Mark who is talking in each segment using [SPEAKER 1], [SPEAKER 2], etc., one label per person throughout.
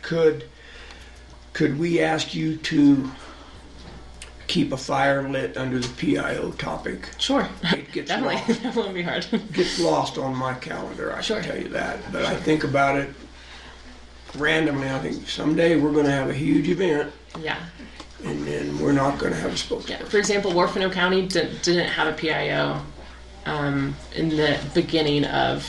[SPEAKER 1] could, could we ask you to keep a fire lit under the PIO topic?
[SPEAKER 2] Sure.
[SPEAKER 1] It gets
[SPEAKER 2] Definitely.
[SPEAKER 1] lost.
[SPEAKER 2] that won't be hard.
[SPEAKER 1] gets lost on my calendar, I
[SPEAKER 2] Sure.
[SPEAKER 1] can tell you that. But I think about it randomly. I think someday we're going to have a huge event,
[SPEAKER 2] yeah.
[SPEAKER 1] and then we're not going to have a
[SPEAKER 2] Yeah.
[SPEAKER 1] spokesperson.
[SPEAKER 2] For example, Warfano County did, didn't have a PIO um, in the beginning of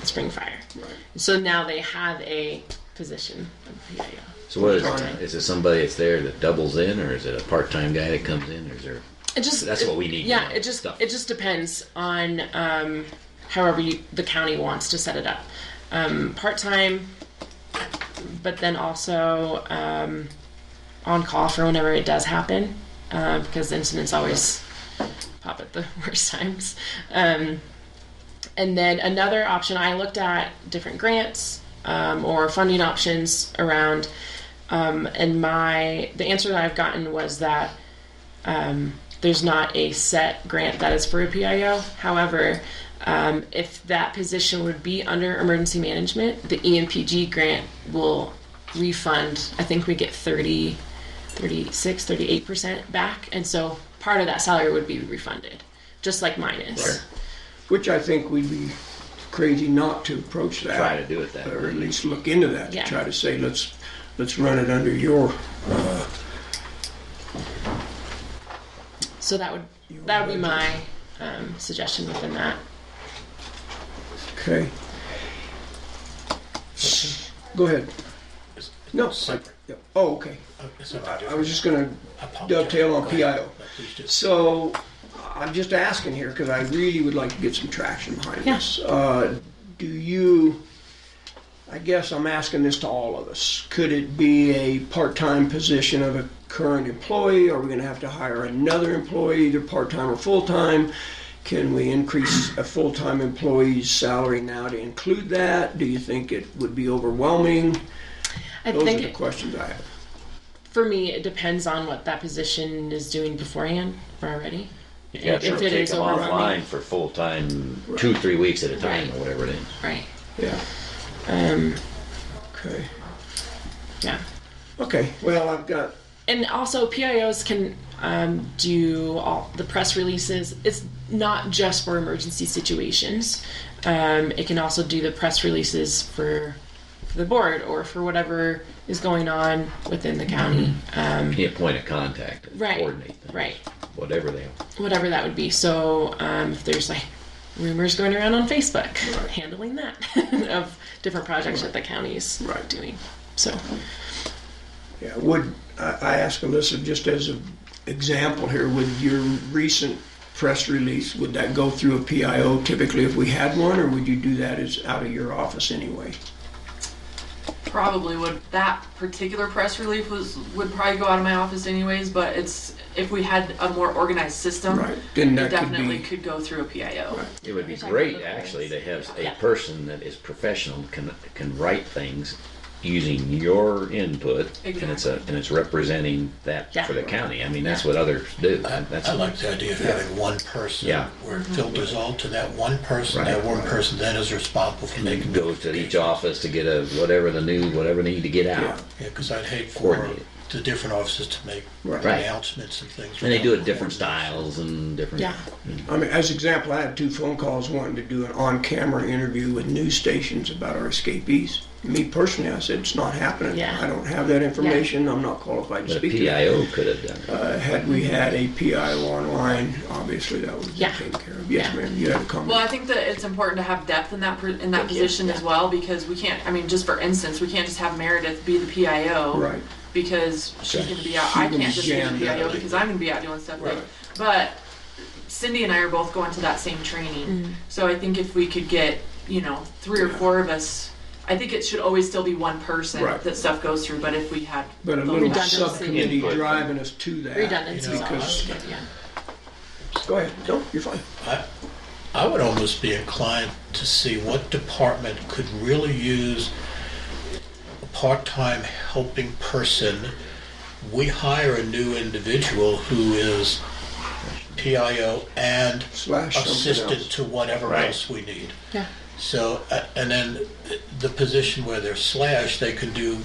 [SPEAKER 2] the spring fire.
[SPEAKER 1] Right.
[SPEAKER 2] So now they have a position of PIO.
[SPEAKER 3] So what is
[SPEAKER 1] Sorry.
[SPEAKER 3] it? Is it somebody that's there that doubles in, or is it a part-time guy that comes in, or is there?
[SPEAKER 2] It just
[SPEAKER 3] That's
[SPEAKER 2] it-
[SPEAKER 3] what we need to
[SPEAKER 2] Yeah,
[SPEAKER 3] know,
[SPEAKER 2] it just
[SPEAKER 3] stuff.
[SPEAKER 2] it just depends on um, however you, the county wants to set it up. Um, Part time, but then also um, on call for whenever it does happen, uh, because incidents always pop at the worst times. Um, and then another option I looked at different grants um, or funding options around. Um, and my the answer that I've gotten was that um, there's not a set grant that is for a PIO. However, um, if that position would be under emergency management, the E EMPG grant will refund. I think we get 30, 36, 38% back. And so part of that salary would be refunded, just like mine is.
[SPEAKER 1] Right. Which I think we'd be crazy not to approach that.
[SPEAKER 3] Try to do it that
[SPEAKER 1] Or
[SPEAKER 3] way.
[SPEAKER 1] at least look into that, to
[SPEAKER 2] Yeah.
[SPEAKER 1] try to say, let's, let's run it under your,
[SPEAKER 2] So that would that would be my um, suggestion within that.
[SPEAKER 1] okay? Go ahead. No. I- yeah. Oh, okay. I was just going to dovetail on PIO. So I'm just asking here because I really would like to get some traction behind
[SPEAKER 2] Yeah.
[SPEAKER 1] this. Uh, do you? I guess I'm asking this to all of us. Could it be a part-time position of a current employee? Are we going to have to hire another employee, either part-time or full-time? Can we increase a full-time employee's salary now to include that? Do you think it would be overwhelming?
[SPEAKER 2] I
[SPEAKER 1] Those are
[SPEAKER 2] think
[SPEAKER 1] the
[SPEAKER 2] it,
[SPEAKER 1] questions I have.
[SPEAKER 2] for me, it depends on what that position is doing beforehand or already.
[SPEAKER 3] You
[SPEAKER 2] got to If it take is them overwhelming.
[SPEAKER 3] offline for full time, two three weeks at a time,
[SPEAKER 2] Right.
[SPEAKER 3] or whatever it is.
[SPEAKER 2] Right.
[SPEAKER 1] Yeah.
[SPEAKER 2] Um,
[SPEAKER 1] Okay.
[SPEAKER 2] yeah.
[SPEAKER 1] Okay. Well, I've got
[SPEAKER 2] and also PIOs can um, do all the press releases. It's not just for emergency situations. Um, it can also do the press releases for, for the board or for whatever is going on within the county. Um,
[SPEAKER 3] Be a point of contact, and
[SPEAKER 2] Right,
[SPEAKER 3] coordinate things,
[SPEAKER 2] right.
[SPEAKER 3] Whatever they.
[SPEAKER 2] whatever that would be. So um, if there's like rumors going around on Facebook, handling that of different projects that the county's
[SPEAKER 1] Right.
[SPEAKER 2] doing. So
[SPEAKER 1] Yeah, would, I I ask Alyssa, just as an example here, would your recent press release, would that go through a PIO typically if we had one, or would you do that as out of your office anyway?
[SPEAKER 4] probably would that particular press relief was would probably go out of my office anyways but it's if we had a more organized system
[SPEAKER 1] Right, then that
[SPEAKER 4] it
[SPEAKER 1] could
[SPEAKER 4] definitely
[SPEAKER 1] be-
[SPEAKER 4] could go through a pio
[SPEAKER 3] It would be
[SPEAKER 2] You're talking about
[SPEAKER 3] great
[SPEAKER 2] the
[SPEAKER 3] actually to have a
[SPEAKER 2] Yeah.
[SPEAKER 3] person that is professional can can write things using your input, and it's a and it's representing that
[SPEAKER 2] Yeah.
[SPEAKER 3] for the county. I mean, that's
[SPEAKER 2] Yeah.
[SPEAKER 3] what others do. I, that's
[SPEAKER 5] I like the idea of having one person.
[SPEAKER 3] Yeah.
[SPEAKER 5] Where it filters all to that one person,
[SPEAKER 3] Right.
[SPEAKER 5] that one person then is responsible for making.
[SPEAKER 3] goes to each office to get a whatever the new whatever they need to get out.
[SPEAKER 1] Yeah.
[SPEAKER 5] Yeah, because I'd hate for
[SPEAKER 3] Coordinate.
[SPEAKER 5] the different offices to make
[SPEAKER 1] Right.
[SPEAKER 3] Right.
[SPEAKER 5] announcements and things.
[SPEAKER 3] And they do it
[SPEAKER 5] without
[SPEAKER 3] different
[SPEAKER 5] coordination.
[SPEAKER 3] styles and different.
[SPEAKER 2] yeah.
[SPEAKER 1] I mean, as example, I had two phone calls, wanting to do an on-camera interview with news stations about our escapees. Me personally, I said, it's not happening.
[SPEAKER 2] Yeah.
[SPEAKER 1] I don't have that information, I'm not qualified to
[SPEAKER 3] But a
[SPEAKER 1] speak to that.
[SPEAKER 3] PIO could have done it.
[SPEAKER 1] Uh, Had we had a PIO online, obviously that would have been
[SPEAKER 2] Yeah.
[SPEAKER 1] taken care of. Yes,
[SPEAKER 2] Yeah.
[SPEAKER 1] ma'am, you had a
[SPEAKER 4] well i
[SPEAKER 1] comment.
[SPEAKER 4] think that it's important to have depth in that per- in that
[SPEAKER 2] Thank you.
[SPEAKER 4] position as well because we can't i mean just for instance we can't just have meredith be the pio
[SPEAKER 1] Right.
[SPEAKER 4] because she's
[SPEAKER 3] Okay.
[SPEAKER 4] going to be out i
[SPEAKER 1] She can
[SPEAKER 4] can't just be
[SPEAKER 1] jam
[SPEAKER 4] the pio
[SPEAKER 1] that.
[SPEAKER 4] because i'm going to be out doing stuff
[SPEAKER 1] Right.
[SPEAKER 4] like but cindy and i are both going to that same training so i think if we could get you know three or
[SPEAKER 1] Yeah.
[SPEAKER 4] four of us I think it should always still be one person
[SPEAKER 1] Right.
[SPEAKER 4] that stuff goes through, but if we had
[SPEAKER 1] But a
[SPEAKER 4] the
[SPEAKER 1] little
[SPEAKER 4] last-
[SPEAKER 2] Redundancy.
[SPEAKER 1] subcommittee
[SPEAKER 3] Input.
[SPEAKER 1] driving us to that.
[SPEAKER 2] Redundancy is always
[SPEAKER 1] Because
[SPEAKER 2] good, yeah.
[SPEAKER 1] Go ahead. No, you're fine.
[SPEAKER 5] I would almost be inclined to see what department could really use a part-time helping person. We hire a new individual who is PIO and
[SPEAKER 1] Slash something
[SPEAKER 5] assistant
[SPEAKER 1] else.
[SPEAKER 5] to whatever
[SPEAKER 3] Right.
[SPEAKER 5] else we need.
[SPEAKER 2] Yeah.
[SPEAKER 5] So, uh, and then uh, the position where they're slashed, they can do